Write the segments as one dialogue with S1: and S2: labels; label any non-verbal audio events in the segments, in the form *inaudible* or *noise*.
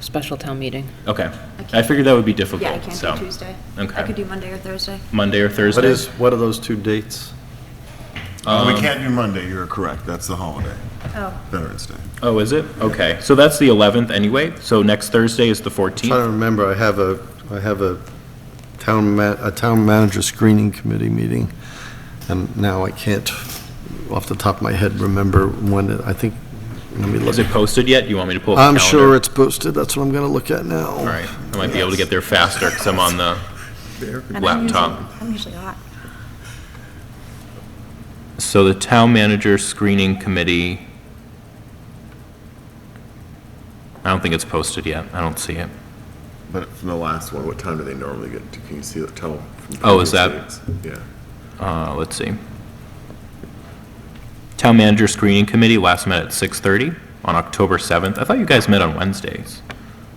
S1: special town meeting.
S2: Okay. I
S3: can't-
S2: figured that would be
S3: Yeah, I
S2: difficult, so.
S3: can't do Tuesday. I
S2: Okay.
S3: could do Monday or Thursday.
S2: Monday or Thursday? Um,
S4: What is, what are those two dates?
S5: Uh,
S6: Um,
S5: We can't do Monday, you're correct, that's the holiday,
S3: Oh,
S5: Veterans Day.
S2: Oh, is it? Okay. So that's the 11th anyway. So next Thursday is the
S4: Trying to
S2: 14th.
S4: remember, I have a, I have a town ma, a town manager screening committee meeting, and now I can't, off the top of my head, remember when, it- I think, let me look.
S2: Is it posted yet? Do you want me to pull up
S4: I'm
S2: the calendar?
S4: sure it's posted, that's what I'm gonna look at now.
S2: All right. I might be able to get there faster because I'm on the
S3: and I'm usually,
S2: laptop.
S3: I'm usually hot.
S2: So the town manager screening committee, I don't think it's posted yet. I don't see it.
S6: But from the last one, what time do they normally get to, can you see, tell? from
S2: Oh, is
S6: previous
S2: that-
S6: meetings? Yeah.
S2: Uh, let's see. Town manager screening committee last met at 6:30 on October 7th. I thought you guys met on Wednesdays.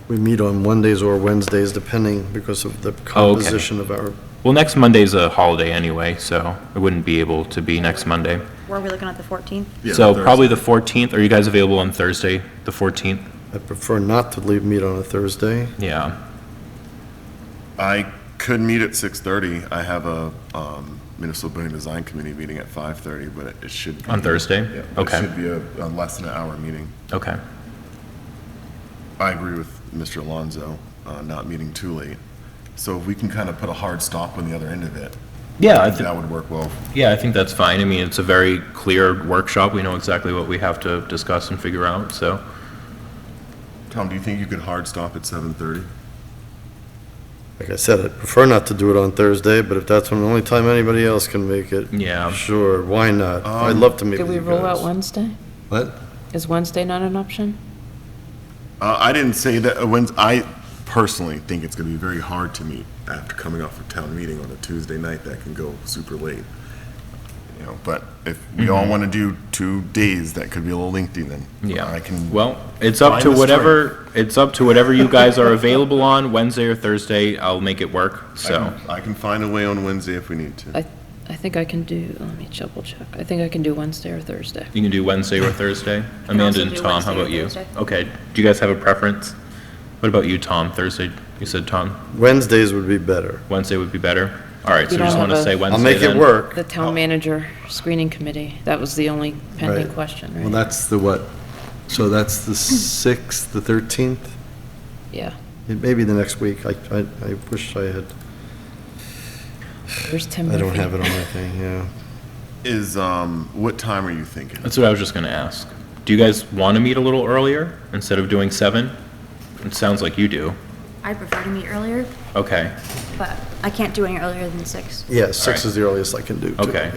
S4: We meet on Mondays or Wednesdays, depending, because of
S2: Oh,
S4: the composition of our,
S2: Well, next Monday's a holiday anyway, so I wouldn't be able to be next Monday.
S3: Were we looking at the 14th?
S5: Yeah,
S2: So
S5: Thursday.
S2: probably the 14th. Are you guys available on Thursday, the 14th?
S4: I prefer not to leave, meet on a Thursday.
S2: Yeah.
S6: I could meet at 6:30. I have a um, municipal building design committee meeting at 5:30, but it- it should. be-
S2: On Thursday?
S6: Yeah.
S2: Okay.
S6: It should be a, a less than an hour meeting.
S2: Okay.
S6: I agree with Mr. Alonso, uh, not meeting too late. So if we can kind of put a hard stop on the other end of it,
S2: Yeah, I thi-
S6: that would work well.
S2: yeah, I think that's fine. I mean, it's a very clear workshop. We know exactly what we have to discuss and figure out, so.
S6: Tom, do you think you could hard stop at 7:30?
S4: Like I said, I prefer not to do it on Thursday, but if that's the only time anybody else can make it.
S2: Yeah.
S4: Sure, why not? I'd love to meet
S1: Did
S4: with
S1: we
S4: you
S1: rule out
S4: guys.
S1: Wednesday?
S4: What?
S1: Is Wednesday not an option?
S6: Uh, I didn't say that, uh, when, I personally think it's gonna be very hard to meet after coming off a town meeting on a Tuesday night that can go super late. You know, but if we
S2: Mm-hmm.
S6: all wanna do two days, that could be a little lengthy then.
S2: Yeah.
S6: I can.
S2: Well, it's up
S6: find
S2: to
S6: the
S2: whatever, it's up to whatever you guys are available on, Wednesday or Thursday, I'll make it work,
S6: I can-
S2: so.
S6: I can find a way on Wednesday if we need to.
S1: I, I think I can do, let me double check. I think I can do Wednesday or Thursday.
S2: You can do Wednesday or Thursday? Amanda
S3: also
S2: and
S3: do
S2: Tom, how
S3: Wednesday or
S2: about you?
S3: Thursday.
S2: Okay, do you guys have a preference? What about you, Tom? Thursday, you said, Tom,
S4: Wednesdays would be better.
S2: Wednesday would be better? All right, so
S1: You
S2: you just
S1: don't
S2: want to
S1: have a-
S2: say Wednesday
S4: I'll make it
S2: then?
S4: work.
S1: The town manager screening committee, that was the only pending
S4: Right. Well,
S1: question, right?
S4: that's the what? So that's the 6th, the 13th?
S1: Yeah.
S4: It may be the next week. I, I, I wish I had,
S1: Where's Tim
S4: I don't
S1: Murphy?
S4: have it on my thing, yeah.
S6: Is, um, what time are you thinking?
S2: That's what I was just going to ask. Do you guys want to meet a little earlier instead of doing seven? It sounds like you do.
S3: I prefer to meet earlier,
S2: Okay,
S3: but I can't do any earlier than 6.
S4: Yeah, 6
S2: Alright.
S4: is the earliest I can do. too.
S2: okay.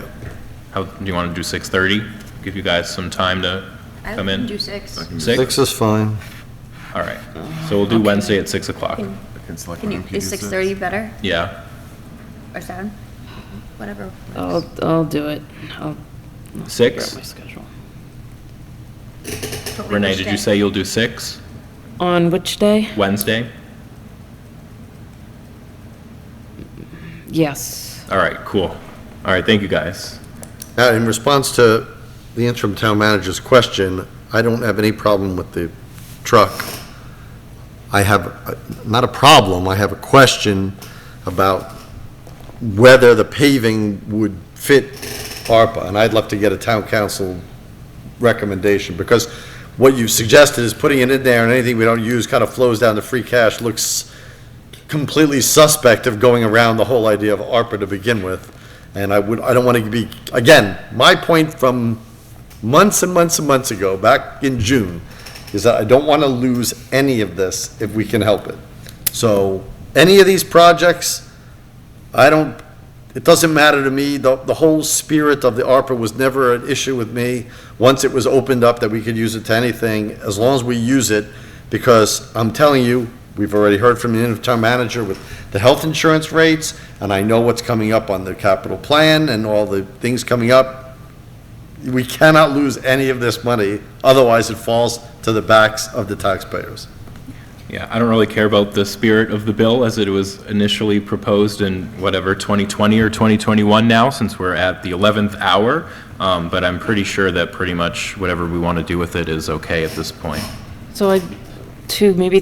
S2: How, do you want to do 6:30? Give you guys some time to
S3: I
S2: come
S3: can
S2: in?
S3: do 6.
S4: Yeah. 6 is fine.
S2: All right, so we'll do
S1: Okay.
S2: Wednesday at 6 o'clock.
S3: Can
S6: Can select
S3: can
S6: one
S3: you,
S6: and
S3: is
S6: pick a
S3: 6:30 better,
S2: Yeah,
S3: or 7? Whatever. works.
S1: *laughs*
S2: Oh,
S1: I'll, I'll do it. I'll I'll figure out
S2: Six?
S1: My schedule.
S3: But we
S2: Renee,
S3: wish
S2: did
S3: that-
S2: you say you'll do 6
S1: On which day?
S2: Wednesday?
S1: Yes.
S2: All right, cool. All right, thank you, guys.
S4: Now, in response to the interim town manager's question, I don't have any problem with the truck. I have, uh, not a problem, I have a question about whether the paving would fit ARPA, and I'd love to get a town council recommendation, because what you've suggested is putting it in there, and anything we don't use kind of flows down to free cash, looks completely suspect of going around the whole idea of ARPA to begin with. And I would, I don't want to be, again, my point from months and months and months ago, back in June, is that I don't want to lose any of this if we can help it. So, any of these projects, I don't, it doesn't matter to me, the, the whole spirit of the ARPA was never an issue with me. Once it was opened up that we could use it to anything, as long as we use it, because I'm telling you, we've already heard from the interim manager with the health insurance rates, and I know what's coming up on the capital plan and all the things coming up. We cannot lose any of this money, otherwise it falls to the backs of the taxpayers.
S2: Yeah, I don't really care about the spirit of the bill as it was initially proposed in whatever, 2020 or 2021 now, since we're at the 11th hour. Um, But I'm pretty sure that pretty much whatever we want to do with it is okay at this point.
S1: So I, two, maybe